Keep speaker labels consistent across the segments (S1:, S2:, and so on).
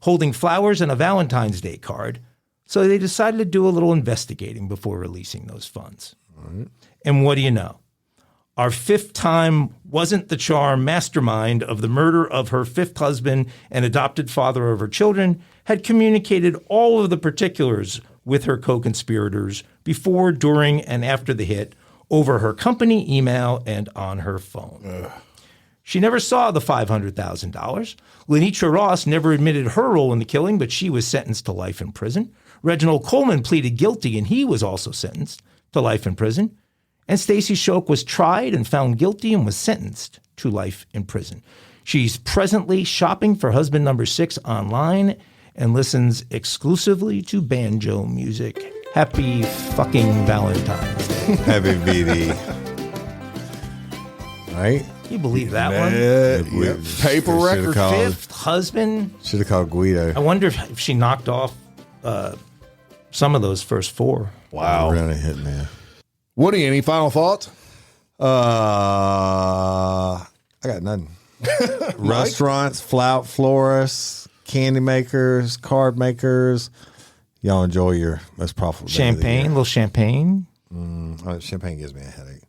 S1: holding flowers and a Valentine's Day card. So they decided to do a little investigating before releasing those funds. And what do you know? Our fifth time wasn't the charm mastermind of the murder of her fifth husband and adopted father of her children had communicated all of the particulars with her co conspirators before, during, and after the hit over her company email and on her phone. She never saw the $500,000. Lenitra Ross never admitted her role in the killing, but she was sentenced to life in prison. Reginald Coleman pleaded guilty, and he was also sentenced to life in prison. And Stacy Shoke was tried and found guilty and was sentenced to life in prison. She's presently shopping for husband number six online and listens exclusively to banjo music. Happy fucking Valentine's Day.
S2: Heavy BD. right?
S1: Can you believe that one?
S2: Yeah,
S3: Uh, Paper
S2: Should
S3: record.
S2: have called,
S1: Fifth husband.
S2: should've called Guido.
S1: I wonder if, if she knocked off uh, some of those first four.
S3: Wow.
S2: Really hit man.
S3: Woody, any final thoughts?
S2: Uh, I got nothing. Restaurants, flout florists, candy makers, card makers. Y'all enjoy your most profitable day of the
S1: Champagne, a
S2: year.
S1: little champagne.
S2: Uh, champagne gives me a headache.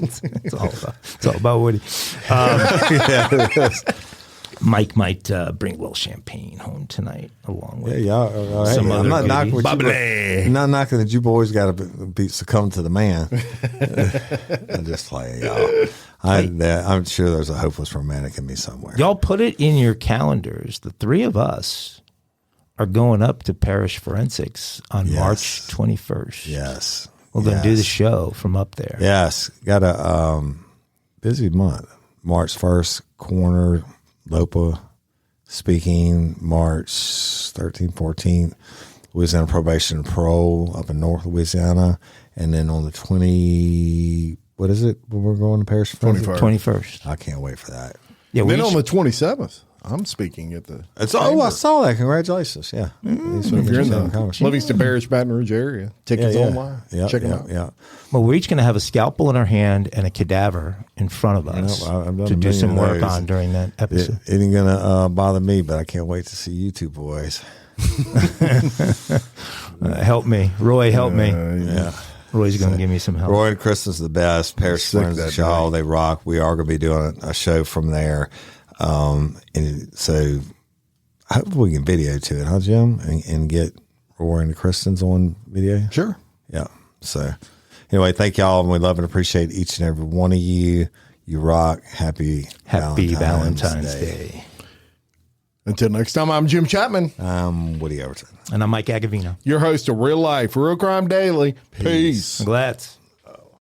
S1: It's all about, it's all about Woody. Um, Mike might uh, bring a little champagne home tonight along with.
S2: Hey, y'all, all right.
S1: Some
S2: I'm
S1: other
S2: not
S1: beauty.
S2: knocking what you-
S3: Bubbly.
S2: I'm not knocking that you boys got to be, be succumb to the man. I'm just playing y'all. I, that, I'm sure there's a hopeless romantic in me somewhere.
S1: Y'all put it in your calendars. The three of us are going up to Parish Forensics on
S2: Yes.
S1: March 21st.
S2: Yes,
S1: We're going to do the
S2: Yes.
S1: show from up there.
S2: Yes, got a um, busy month. March first, corner Lopa speaking. March 13th, 14th, Louisiana probation and parole up in North Louisiana, and then on the twenty, what is it? When we're going to Parish twenty
S1: 21st.
S2: I can't wait for that.
S1: Yeah, we
S3: Then on
S1: each-
S3: the 27th, I'm speaking at the.
S2: It's oh, I saw that. Congratulations! Yeah, These
S3: Mm-hmm. If you're in
S2: interesting
S3: the
S2: conversations.
S3: Livingston Parish, Baton Rouge area,
S2: yeah,
S3: tickets
S2: yeah.
S3: online.
S2: Yeah,
S3: Check
S2: yeah,
S3: them out.
S2: Yeah,
S1: Well, we're each going to have a scalpel in our hand and a cadaver in front of us
S2: I- I've done a
S1: to do
S2: million
S1: some
S2: of
S1: work
S2: those.
S1: on during that
S2: It,
S1: episode.
S2: it ain't gonna uh, bother me, but I can't wait to see you two boys.
S1: Uh, help me, Roy. Help me.
S3: yeah.
S1: Roy's going to give me some help.
S2: Roy and Kristen's the best. Paris
S3: Sick
S2: Friends
S3: that
S2: Shaw, they rock. We are going to be doing a show from there. Um, and so I hope we can video to it, huh, Jim? And, and get Roy and Kristen's on video.
S3: Sure.
S2: Yeah. So anyway, thank y'all. And we love and appreciate each and every one of you. You rock. Happy,
S1: Happy Valentine's Day.
S3: Until next time, I'm Jim Chapman,
S2: Um, Woody Overton.
S1: And I'm Mike Agavino.
S3: your host of Real Life, Real Crime Daily. Peace.
S1: Glad.